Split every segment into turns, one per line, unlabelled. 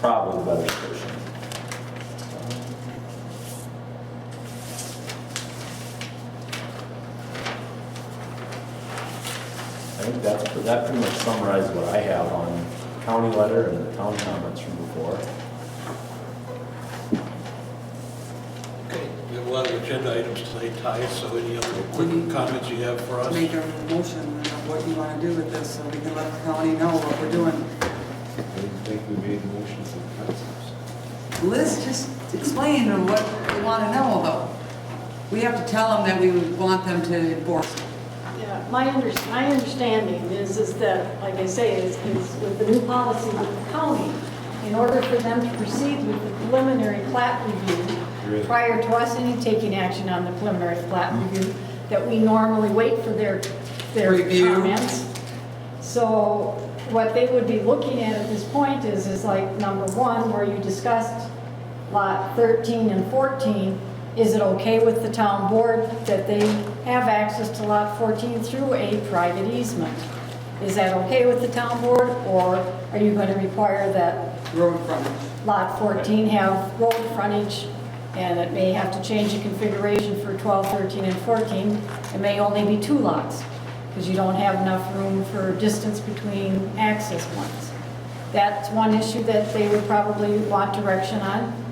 probably the better solution. I think that's, that pretty much summarized what I have on county letter and the town comments from before.
Okay, we have a lot of agenda items today, Ty, so any other quick comments you have for us?
Make a motion of what you want to do with this, so we can let the county know what we're doing.
I think we made motions and concepts.
Liz just explained what they want to know about. We have to tell them that we would want them to enforce. it.
Yeah, my under, my understanding is, is that, like I say, is, is with the new policy with the county, in order for them to proceed with the preliminary plat review,
Really?
prior to us any taking action on the preliminary plat review, that we normally wait for their, their
Review.
comments. So what they would be looking at at this point is, is like number one, where you discussed lot 13 and 14, is it okay with the town board that they have access to lot 14 through a private easement? Is that okay with the town board, or are you going to require that
Road frontage.
lot 14 have road frontage, and it may have to change the configuration for 12, 13, and 14. It may only be two lots, because you don't have enough room for distance between access points. That's one issue that they would probably want direction on.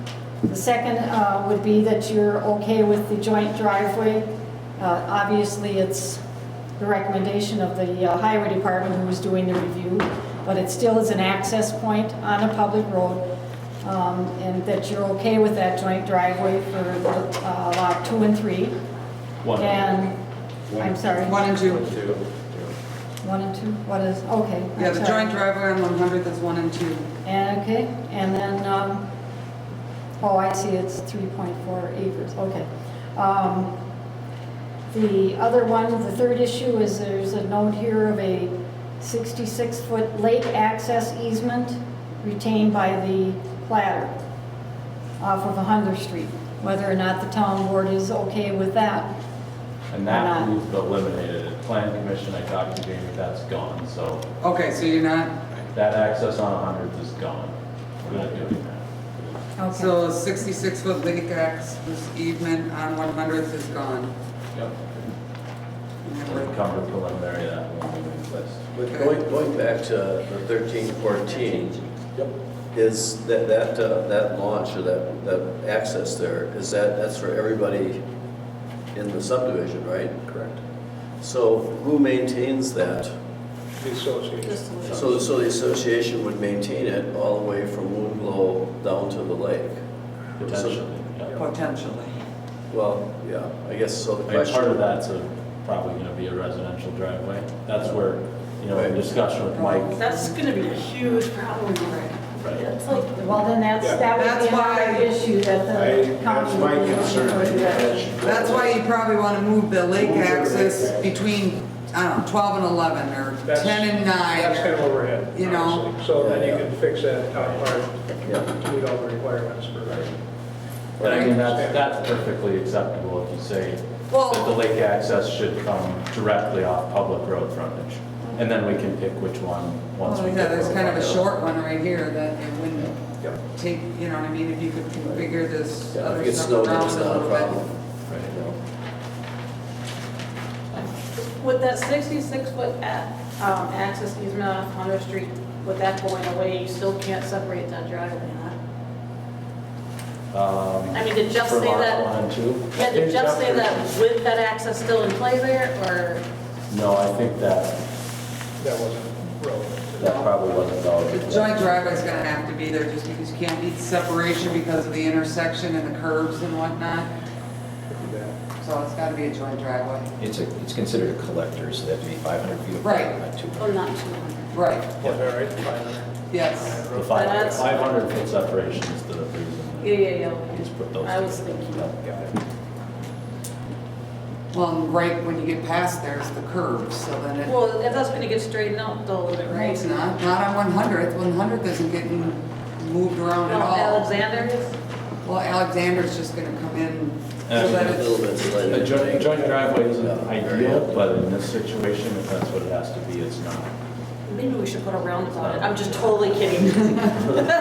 The second uh, would be that you're okay with the joint driveway. Uh, Obviously, it's the recommendation of the uh, highway department who was doing the review, but it still is an access point on a public road, um, and that you're okay with that joint driveway for the, uh, lot two and three.
One.
And, I'm sorry,
One and two.
one and two, what is, okay. I'm
Yeah, the
sorry.
joint driveway on 100th is one and two.
And, okay, and then, um, oh, I see, it's 3.4 acres, okay. Um, The other one, the third issue is there's a note here of a 66-foot lake access easement retained by the platter off of 100th Street, whether or not the town board is okay with that.
And that we've eliminated it. Planning commission, I talked to Jamie, that's gone, so
Okay, so you're not,
that access on 100th is gone. We're not doing that.
Okay.
so 66-foot lake access easement on 100th is gone.
Yep. We've come to preliminary, that won't be replaced.
But going, going back to the thirteen, fourteen, is that, that, uh, that launch or that, that access there, is that, that's for everybody in the subdivision, right? Correct. So who maintains that?
The association.
So, so the association would maintain it all the way from Moon Glow down to the lake?
Potentially, yeah.
Potentially.
Well, yeah, I guess so the
I mean,
question.
part of that's a- probably going to be a residential driveway. That's where, you know, in discussion with Mike,
That's gonna be a huge problem, Rick.
right?
It's like,
Well, then that's, that would be
That's why-
another issue that the county.
That's my
would be
concern. I think
looking for that.
that should go.
That's why you probably want to move the lake access between, I don't know, 12 and 11, or
That's-
10 and
That's kind
9.
of overhead.
You know.
honestly. So then you can fix that top part,
Yeah.
to meet all the requirements for that.
But I mean, that's, that's perfectly acceptable if you say
Well-
that the lake access should come directly off public road frontage. And then we can pick which one, once
Well,
we
Oh, yeah,
get.
there's
road
kind of a
frontage.
short one right here that it wouldn't
Yep.
take, you know what I mean, if you could configure this
Yeah, if it
other
gets
stuff
snowed,
around
it's
a
not a
little
problem.
bit.
Right.
you know?
With that sixty-six foot a- um, access easement off Hunter Street, with that going away, you still can't separate that driveway, huh?
Um,
I mean, did just
for
say
lots
that-
one and two?
Yeah, did just say that with that access still in play there, or?
No, I think that,
That wasn't relevant.
that probably wasn't
The
valid.
joint driveway's gonna have to be there just because you can't meet separation because of the intersection and the curves and whatnot, so it's gotta be a joint driveway.
It's a, it's considered a collector, so that'd be 500 feet. apart,
Right.
not two.
Or not two hundred?
Right,
All right, fine.
yes.
The five-
That's-
500 foot separation is the reason.
Yeah, yeah, yeah,
that
okay.
we just put those
I was
together.
thinking.
Yep, got it.
Well, and right when you get past there's the curve, so then it,
Well, if that's gonna get straightened out though,
No,
right?
it's not, not on 100th, 100th isn't getting moved around at
No,
all.
Alexander is?
Well, Alexander's just gonna come in so
Um,
that
A little
it's,
bit later.
A joint, joint driveway isn't ideal, but in this situation, if that's what it has to be, it's not.
Maybe we should put a roundabout. I'm just totally kidding.